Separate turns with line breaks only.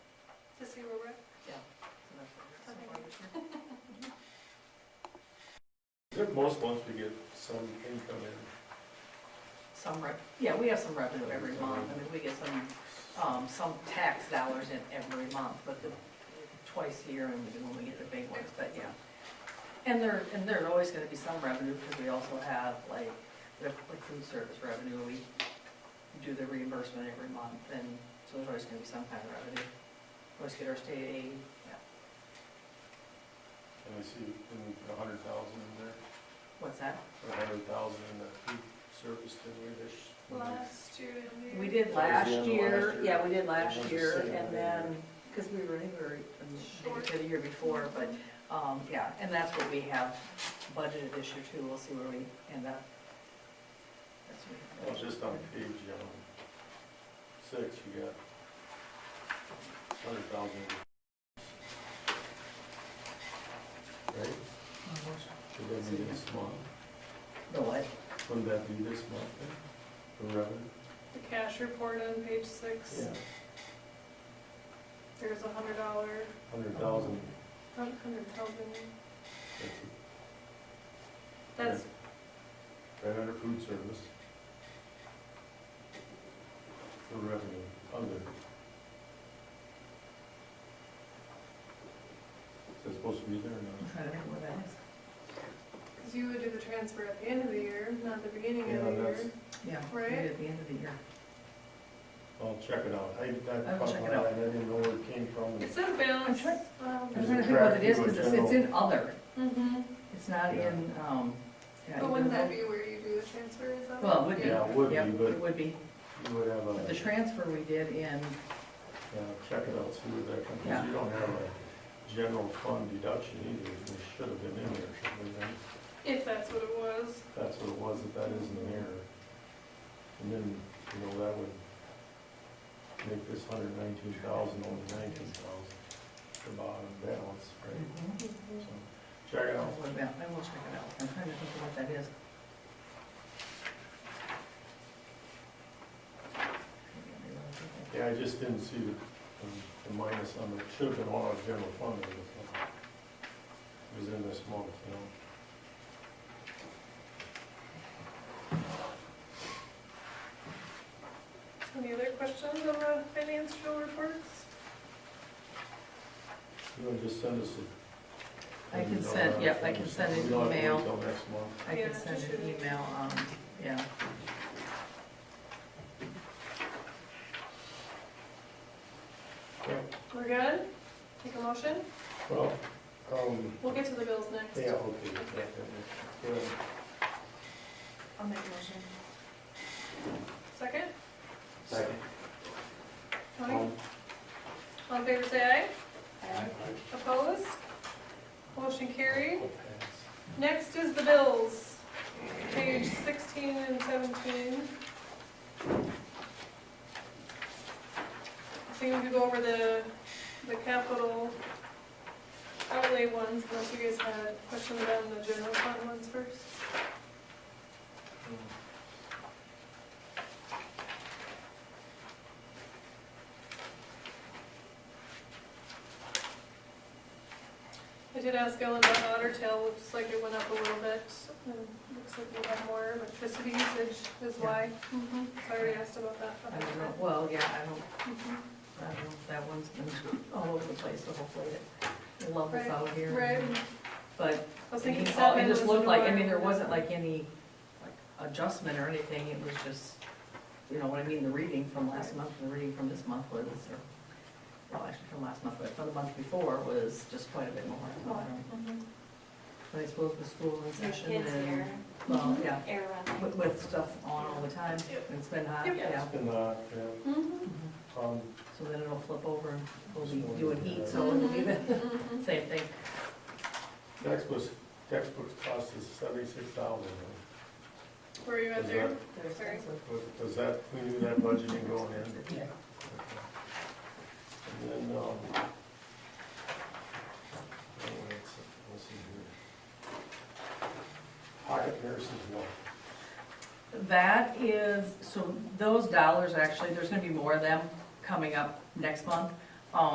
to see where we're at.
Good, most months we get some income in.
Some rep, yeah, we have some revenue every month, I mean, we get some, um, some tax dollars in every month, but the, twice a year and when we get the big ones, but yeah. And there, and there's always gonna be some revenue, because we also have like, the like food service revenue, we do the reimbursement every month, and so there's always gonna be some kind of revenue. Always get our state aid, yeah,
And we see, and we put a hundred thousand in there,
what's that?
or a hundred thousand in that food service, didn't we, this?
Last year, didn't
We did
That was
last
the end of
year,
last year.
yeah, we did last
It was the
year,
same
and
thing.
then, because we were, I think we were, I mean, maybe for the year before, but, um, yeah, and that's what we have budgeted this year too, we'll see where we end up. That's what we
Well,
have.
just on page, um, six, you got hundred thousand. Right? Should that be this month?
The what?
Wouldn't that be this month then? The revenue?
The cash report on page six, there's a hundred dollar,
Hundred thousand.
hundred thousand, that's,
Right under food service. For revenue, under. Is that supposed to be there or
I'm
not?
trying to remember what that is.
because you would do the transfer at the end of the year, not the beginning of the
Yeah,
year.
that's,
Yeah,
Right.
maybe at the end of the year.
I'll check it out. I,
I will
I caught
check it
my
out.
eye, I didn't know where it came from.
It says balance. Um,
sure. I'm
Is
trying
it
to think what
tracked
it is,
through a
because it's, it's
general-
in other,
Mm-hmm,
it's not
Yeah.
in, um, yeah.
but
you
wouldn't
know,
that be where you do the transfer, is that?
Well, it would be.
Yeah, it would be,
Yep,
but-
It would be,
You would have a,
but the
yeah,
transfer we did in,
check it out, see where that comes,
Yeah.
because you don't have a general fund deduction either. It should have been in there, shouldn't it?
If that's what it was,
That's what it was, if that is in there. And then, you know, that would make this hundred nineteen thousand only nineteen thousand, the bottom balance, right?
Mhm.
So, Check it
Oh, I
out.
will check it out, I'm trying to think of what that is.
Yeah, I just didn't see the, um, the minus on it, should have been all our general fund. it was, uh, It was in this month, you know?
any other questions on the financial reports?
You want to just send us a.
I can send- yep, I can send an
We don't have to wait
email.
till next month.
I
Yeah,
can send
just
an
shoot it.
email, um, yeah.
Okay.
We're good? Take a motion?
Well, um,
We'll get to the bills next.
yeah, okay. yeah, yeah, yeah.
I'll make a motion. Second?
Second.
Um,
Tony? All in favor, say aye. Opposed? Motion carried. Next is the bills, page sixteen and seventeen. I think we could go over the, the capital outlay ones, unless you guys had questions on the general fund ones first. I did ask Ellen about otter tail, looks like it went up a little bit, and looks like we'll have more electricity usage is why. Mhm. So I already asked about that.
I don't know, well, yeah, I don't,
Mhm.
I don't, know if that one's been all over the place, so hopefully it levels
Mm-hmm. Right,
out here.
Right,
But
I was
it
thinking
all-
seven
it
was
just looked like, I mean, there
another-
wasn't like any like adjustment or anything, it was just, you know what I mean, the reading from last month, and the reading from this month was, or, well, actually from last month, but from the month before was just quite a bit more. Um, so I don't-
Mhm.
I suppose with school in
Your
session
kids here,
and, well, yeah,
air running.
with, with stuff on all the time, and it's been hot,
Mm-hmm. Yep.
yeah. Mm-hmm.
And, uh, yeah,
Mhm.
um,
So then it'll flip over and we'll be doing heat, so
Mm-hmm.
it'll be the
Mhm.
same thing.
textbooks, textbooks cost us seventy-six thousand.
Where are you at
Is
there?
that- Was that, we knew that budgeting going in? Okay.
Yeah.
And then, um, oh, wait, let's- let's see here. Pocket nurses, no.
That is, so those dollars, actually, there's gonna be more of them coming up next month. Um,